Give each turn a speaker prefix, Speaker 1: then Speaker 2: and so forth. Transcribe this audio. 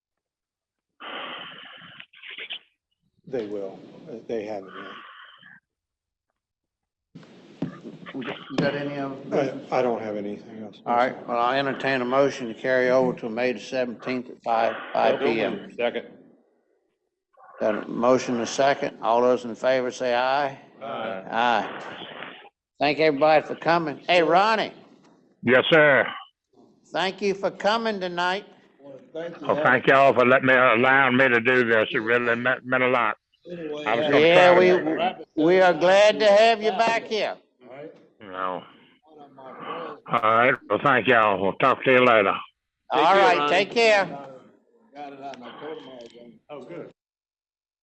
Speaker 1: They will. Uh, They haven't
Speaker 2: You got- you got any of them?
Speaker 1: yet. I, I don't have anything else.
Speaker 2: All right, well, I entertain a motion to carry over to May the seventeenth at five, five P M.
Speaker 3: Second.
Speaker 2: Got a motion and a second. All those in favor say aye.
Speaker 3: Aye.
Speaker 2: Aye. Thank everybody for coming. Hey, Ronnie,
Speaker 4: Yes, sir.
Speaker 2: thank you for coming tonight.
Speaker 5: Thank you.
Speaker 4: Well, thank y'all for letting me, allowing me to do this. It really meant, meant a lot.
Speaker 5: Anyway,
Speaker 4: I was
Speaker 5: uh,
Speaker 4: gonna
Speaker 2: Yeah,
Speaker 4: try
Speaker 2: we, we are glad to have you back here.
Speaker 5: all right,
Speaker 4: You know.
Speaker 5: one of my friends
Speaker 4: All right. Well, thank y'all. We'll talk to you later.
Speaker 2: All right, take care.
Speaker 5: got it out, and I told him I was gonna
Speaker 1: Oh, good.